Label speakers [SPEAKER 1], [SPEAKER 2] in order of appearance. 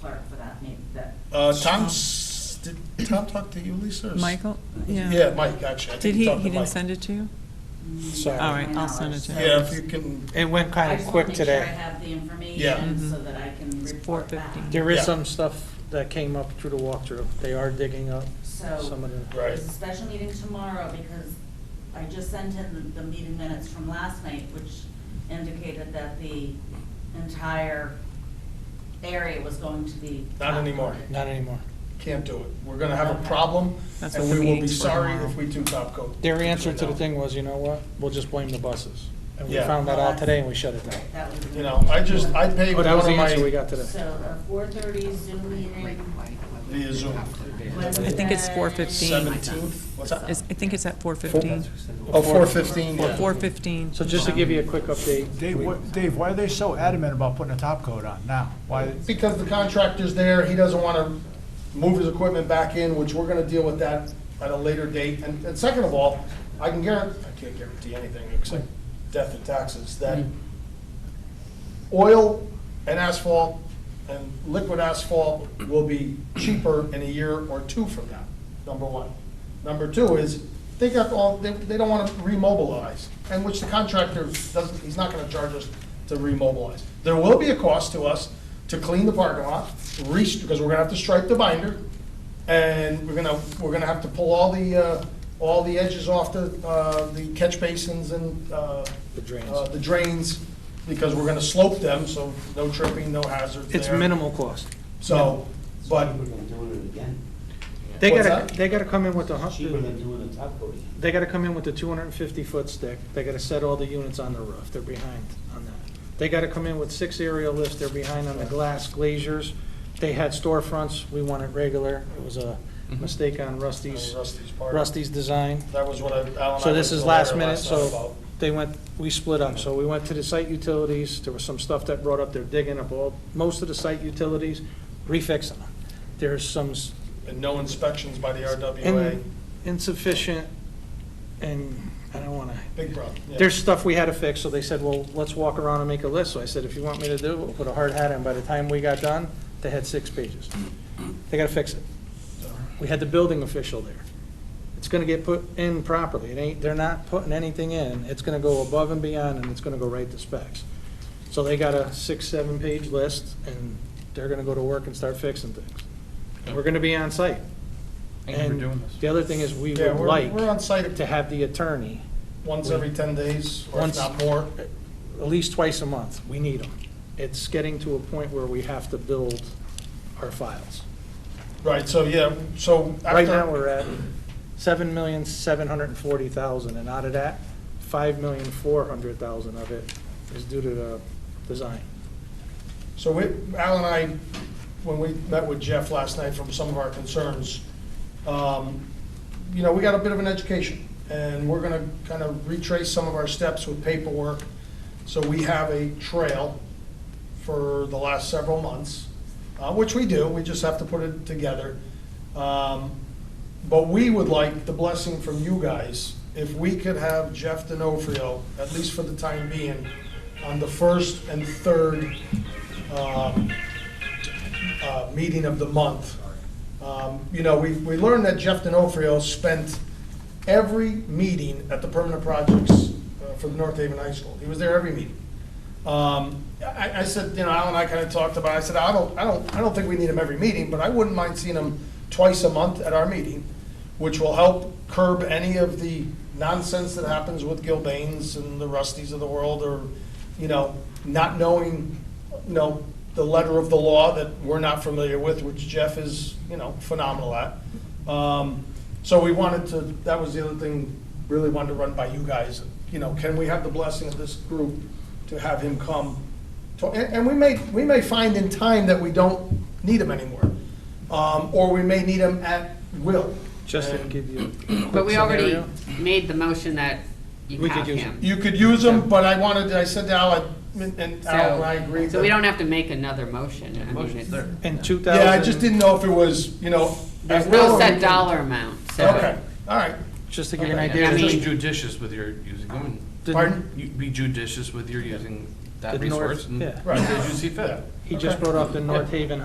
[SPEAKER 1] clerk for that, maybe, that.
[SPEAKER 2] Uh, Tom's, did Tom talk to you, Lisa? or s-
[SPEAKER 3] Michael?
[SPEAKER 2] Yeah, Mike, actually. I think
[SPEAKER 3] Did he,
[SPEAKER 2] talked to
[SPEAKER 3] he didn't
[SPEAKER 2] Mike.
[SPEAKER 3] send it to you?
[SPEAKER 2] Sorry.
[SPEAKER 3] All right,
[SPEAKER 1] I know,
[SPEAKER 3] I'll send it
[SPEAKER 1] so-
[SPEAKER 3] to him.
[SPEAKER 2] Yeah, if you can,
[SPEAKER 4] It went
[SPEAKER 1] I
[SPEAKER 4] kind of
[SPEAKER 1] just wanna
[SPEAKER 4] quick
[SPEAKER 1] make sure I
[SPEAKER 4] today.
[SPEAKER 1] have the
[SPEAKER 2] Yeah.
[SPEAKER 1] information
[SPEAKER 3] Mhm.
[SPEAKER 1] so that I can
[SPEAKER 3] It's
[SPEAKER 1] report back.
[SPEAKER 3] 4:15.
[SPEAKER 4] There is
[SPEAKER 2] Yeah.
[SPEAKER 4] some stuff that came up through the walkthrough. They are digging up some
[SPEAKER 1] So,
[SPEAKER 4] of the,
[SPEAKER 2] right,
[SPEAKER 1] there's a special meeting tomorrow because I just sent in the, the meeting minutes from last night, which indicated that the entire area was going to be.
[SPEAKER 2] Not anymore.
[SPEAKER 1] top-coated.
[SPEAKER 4] not anymore.
[SPEAKER 2] can't do it. We're gonna have a
[SPEAKER 1] Okay.
[SPEAKER 2] problem,
[SPEAKER 3] That's
[SPEAKER 2] and
[SPEAKER 3] what
[SPEAKER 2] we
[SPEAKER 3] the
[SPEAKER 2] will be
[SPEAKER 3] meeting's for
[SPEAKER 2] sorry
[SPEAKER 3] tomorrow.
[SPEAKER 2] if we do top coat.
[SPEAKER 4] Their answer to the thing was, you know what, we'll just blame the buses. And we
[SPEAKER 2] Yeah.
[SPEAKER 4] found
[SPEAKER 1] Oh,
[SPEAKER 4] that out today and we shut it down.
[SPEAKER 1] That was.
[SPEAKER 2] You know, I just, I paid
[SPEAKER 4] Oh,
[SPEAKER 2] one
[SPEAKER 4] that was
[SPEAKER 2] of
[SPEAKER 4] the answer we
[SPEAKER 2] my,
[SPEAKER 4] got today.
[SPEAKER 1] So, a four thirty Zoom meeting.
[SPEAKER 2] via Zoom,
[SPEAKER 3] I think it's 4:15.
[SPEAKER 2] seventeenth, what's that?
[SPEAKER 3] It's- I think it's at 4:15.
[SPEAKER 2] Oh, four fifteen, yeah.
[SPEAKER 3] 4:15.
[SPEAKER 4] So just to give you a quick update.
[SPEAKER 5] Dave,
[SPEAKER 4] we-
[SPEAKER 5] what, Dave, why are they so adamant about putting a top coat on now? Why,
[SPEAKER 2] Because the contractor's there, he doesn't want to move his equipment back in, which we're going to deal with that at a later date. And, and second of all, I can guarantee, I can't guarantee anything except death and taxes,
[SPEAKER 3] Mm.
[SPEAKER 2] that oil and asphalt and liquid asphalt will be cheaper in a year or two from now, number one. Number two is, they got all, they, they don't want to remobilize, and which the contractor doesn't, he's not going to charge us to remobilize. There will be a cost to us to clean the parking lot, reach, because we're going to have to stripe the binder, and we're gonna, we're gonna have to pull all the, uh, all the edges off the, uh, the catch basins and, uh.
[SPEAKER 4] The drains.
[SPEAKER 2] uh, The drains, because we're gonna slope them, so no tripping, no hazards there.
[SPEAKER 4] It's minimal cost.
[SPEAKER 2] So, but,
[SPEAKER 6] Cheaper than doing it again.
[SPEAKER 4] They
[SPEAKER 2] What's
[SPEAKER 4] gotta,
[SPEAKER 2] that?
[SPEAKER 4] they gotta come in with the,
[SPEAKER 6] Cheaper
[SPEAKER 4] hun-
[SPEAKER 6] than doing the top coat again.
[SPEAKER 4] they gotta come in with the two hundred and fifty foot stick. They gotta set all the units on the roof. They're behind on that. They gotta come in with six aerial lifts. They're behind on the glass glaziers. They had storefronts. We want it regular. It was a mistake on Rusty's,
[SPEAKER 2] Rusty's part.
[SPEAKER 4] Rusty's design.
[SPEAKER 2] That was what I, Al and I went
[SPEAKER 4] So this
[SPEAKER 2] to
[SPEAKER 4] is
[SPEAKER 2] the
[SPEAKER 4] last
[SPEAKER 2] lawyer
[SPEAKER 4] minute,
[SPEAKER 2] night
[SPEAKER 4] so
[SPEAKER 2] about.
[SPEAKER 4] they went, we split up. So we went to the site utilities, there was some stuff that brought up, they're digging up all, most of the site utilities, refixing them. There's some s-
[SPEAKER 2] And no inspections by the RWA,
[SPEAKER 4] in- insufficient, and I don't want to,
[SPEAKER 2] big problem. yeah.
[SPEAKER 4] there's stuff we had to fix, so they said, well, let's walk around and make a list. So I said, if you want me to do it, we'll put a hard hat on. By the time we got done, they had six pages. They got to fix it. We had the building official there. It's gonna get put in properly. It ain't, they're not putting anything in. It's gonna go above and beyond, and it's gonna go right to specs. So they got a six, seven-page list, and they're gonna go to work and start fixing things. And We're gonna be on site. And The other thing is, we
[SPEAKER 2] Yeah,
[SPEAKER 4] would
[SPEAKER 2] we're, we're
[SPEAKER 4] like
[SPEAKER 2] on site
[SPEAKER 4] to have the attorney
[SPEAKER 2] once every ten days, or if
[SPEAKER 4] Once-
[SPEAKER 2] not more.
[SPEAKER 4] at least twice a month. We need them. It's getting to a point where we have to build our files.
[SPEAKER 2] Right, so, yeah, so.
[SPEAKER 4] Right
[SPEAKER 2] after-
[SPEAKER 4] now, we're at seven million, seven hundred and forty thousand, and out of that, five million, four hundred thousand of it is due to the design.
[SPEAKER 2] So we, Al and I, when we met with Jeff last night from some of our concerns, um, you know, we got a bit of an education, and we're gonna kind of retrace some of our steps with paperwork. So we have a trail for the last several months, uh, which we do, we just have to put it together. Um, But we would like the blessing from you guys, if we could have Jeff D'Onofrio, at least for the time being, on the first and third um, uh, meeting of the month. Um, You know, we, we learned that Jeff D'Onofrio spent every meeting at the permanent projects uh, for the North Haven High School. He was there every meeting. Um, I, I said, you know, Al and I kind of talked about, it. I said, I don't, I don't, I don't think we need him every meeting, but I wouldn't mind seeing him twice a month at our meeting, which will help curb any of the nonsense that happens with Gilbanes and the Rusties of the world, or, you know, not knowing, you know, the letter of the law that we're not familiar with, which Jeff is, you know, phenomenal at. Um, So we wanted to, that was the other thing, really wanted to run by you guys, you know, can we have the blessing of this group to have him come? to- And, and we may, we may find in time that we don't need him anymore, um, or we may need him at will.
[SPEAKER 4] Just to
[SPEAKER 2] And
[SPEAKER 4] give you a
[SPEAKER 7] But
[SPEAKER 4] quick
[SPEAKER 7] we already
[SPEAKER 4] scenario.
[SPEAKER 7] made the motion that you
[SPEAKER 4] We could
[SPEAKER 7] have
[SPEAKER 4] use
[SPEAKER 7] him.
[SPEAKER 2] You could use him, but I wanted, I said to Al, I- and Al and I
[SPEAKER 7] So,
[SPEAKER 2] agreed.
[SPEAKER 7] so we
[SPEAKER 2] that-
[SPEAKER 7] don't have to make another motion. I mean, it's-
[SPEAKER 4] In two thousand.
[SPEAKER 2] Yeah, I just didn't know if it was, you know.
[SPEAKER 7] There's
[SPEAKER 2] at will or
[SPEAKER 7] no
[SPEAKER 2] we
[SPEAKER 7] set
[SPEAKER 2] can-
[SPEAKER 7] dollar amount,
[SPEAKER 2] Okay,
[SPEAKER 7] so.
[SPEAKER 2] all right.
[SPEAKER 4] Just to give you an
[SPEAKER 7] Okay.
[SPEAKER 4] idea.
[SPEAKER 7] I mean-
[SPEAKER 8] Just judicious with your using them.
[SPEAKER 4] the-
[SPEAKER 2] Pardon?
[SPEAKER 8] You- Be judicious with your using that
[SPEAKER 4] The north-
[SPEAKER 8] resource. and
[SPEAKER 4] yeah.
[SPEAKER 8] As you see fit.
[SPEAKER 2] Yeah.
[SPEAKER 4] He just brought up the North Haven